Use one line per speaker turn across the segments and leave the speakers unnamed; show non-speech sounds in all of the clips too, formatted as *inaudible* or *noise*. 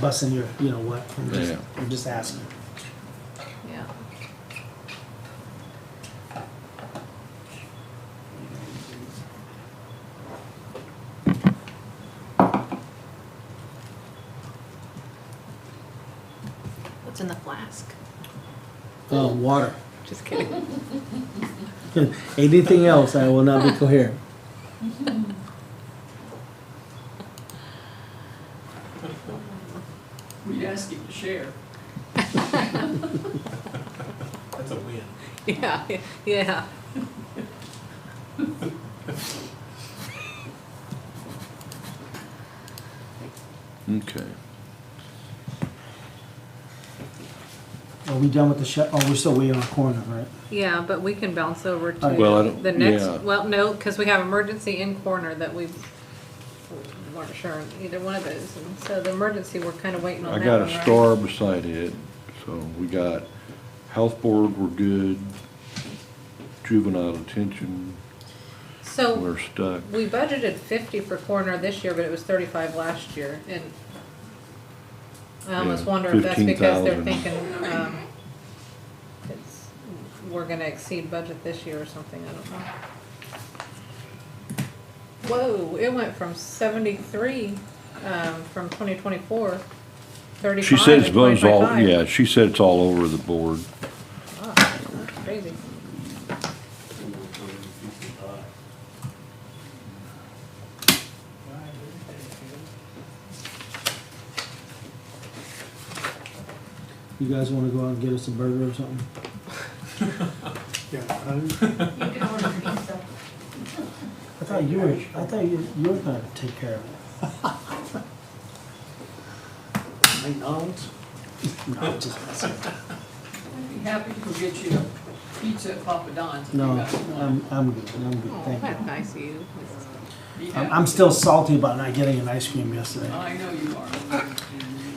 busting your, you know what, I'm just,
Yeah.
I'm just asking.
yeah. What's in the flask?
Uh, water.
Just kidding. *laughs*
Anything else, I will not be coherent.
We'd ask him to share.
That's a win.
Yeah, yeah.
Okay.
Are we done with the shut, oh, we're still waiting on corner, right?
Yeah, but we can bounce over to
Well, I don't-
the next,
yeah.
well, no, because we have emergency in corner that we weren't sure on either one of those. And So the emergency, we're kind of waiting on
I
that
got
one,
a
right?
star beside it, so we got health board, we're good. Juvenile detention,
So
we're stuck.
we budgeted fifty for coroner this year, but it was thirty-five last year and I almost
Yeah,
wonder if that's because they're
15,000.
thinking, um, it's, we're gonna exceed budget this year or something, I don't know. Whoa, it went from seventy-three, um, from twenty twenty-four, thirty-five
She said it's
in
bones all,
2025.
yeah, she said it's all over the board.
Wow, Ah, Crazy.
You guys wanna go out and get us a burger or something?
You can order pizza.
I thought you were, I thought you, you were gonna take care of it. *laughs*
McDonald's?
No, I'm just messing.
I'd be happy to go get you a pizza at Papa Don's if you
No,
got one.
I'm, I'm good, I'm good,
Oh,
thank
that's
you.
nice of you.
Be
I'm,
happy.
I'm still salty about not getting an ice cream yesterday.
I know you are.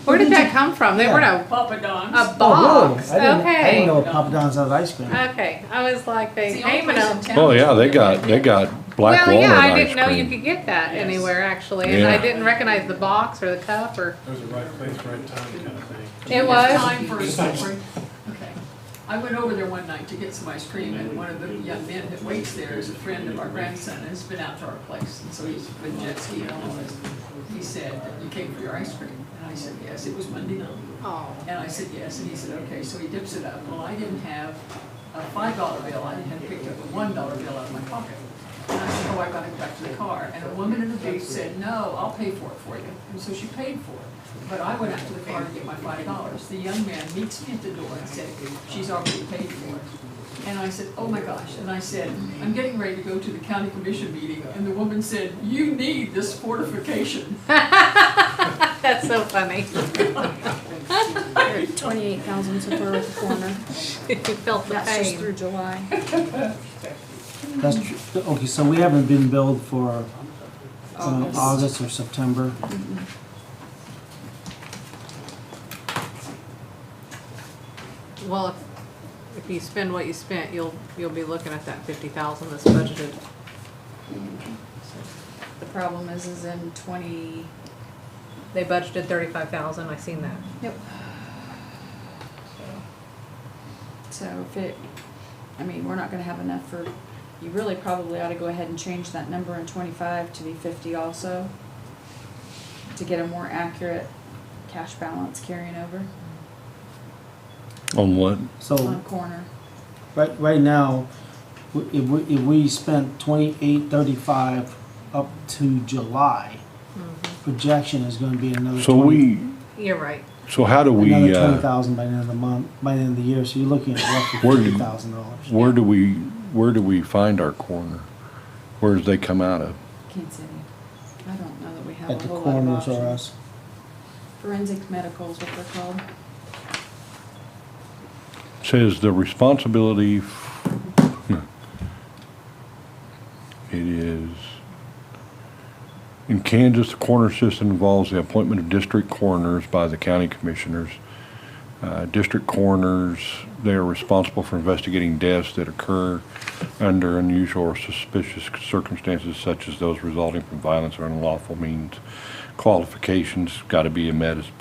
Where did that come from? They were
Yeah.
a
Papa
A
Don's.
Oh,
box,
really? I didn't, I
okay.
didn't know Papa Don's had ice cream.
Okay, I was like,
It's
they
the only
came and
place in
I'm-
town
Oh,
that
yeah,
you
they
can
got,
get
they
it.
got black
Well,
walnut
yeah, I
ice
didn't know you
cream.
could get that
Yes.
anywhere actually, and I
Yeah.
didn't recognize the box or the cup or,
It was the right place, right time kind of thing.
it
It's
was.
time for a story. Okay. I went over there one night to get some ice cream, and one of the young men that waits there is a friend of our grandson, and has been out to our place, and so he's been jet skiing and all this. He said, "You came for your ice cream?" And I said, "Yes, it was Monday night."
Oh,
And I said, yes, and he said, okay, so he dips it up. Well, I didn't have a five dollar bill, I had picked up a one dollar bill out of my pocket. And I said, oh, I gotta go back to the car, and a woman in the booth said, no, I'll pay for it for you, and so she paid for it. But I went out to the car to get my five dollars, the young man meets me at the door and said, she's already paid for it. And I said, oh my gosh, and I said, I'm getting ready to go to the county commission meeting, and the woman said, you need this fortification.
*laughs* that's so funny. *laughs*
Twenty-eight thousand's a third of the corner.
You felt the
That's just through
pain.
July.
That's true, okay, so we haven't been billed for, um,
August.
August or September.
Well, if, if you spend what you spent, you'll, you'll be looking at that fifty thousand that's budgeted.
The problem is, is in twenty,
They budgeted thirty-five thousand, I seen that.
yep. So if it, I mean, we're not gonna have enough for, you really probably ought to go ahead and change that number in twenty-five to be fifty also. To get a more accurate cash balance carrying over
On what?
So,
on corner.
right, right now, w- if we, if we spent twenty-eight thirty-five up to July, projection is gonna be another
So
twenty,
we,
You're right.
so how do we,
another twenty
uh,
thousand by the end of the month, by the end of the year, so you're looking at roughly
Where did-
thirty thousand dollars.
where do we, where do we find our corner? Where does they come out of?
Kansas City. I don't know that we have a
At the
whole lot of
corners or
options.
us,
Forensic medical is what they're called.
Says the responsibility, f- hmm. it is, in Kansas, the coroner system involves the appointment of district coroners by the county commissioners. Uh, District coroners, they are responsible for investigating deaths that occur under unusual or suspicious circumstances such as those resulting from violence or unlawful means. Qualifications, gotta be a med,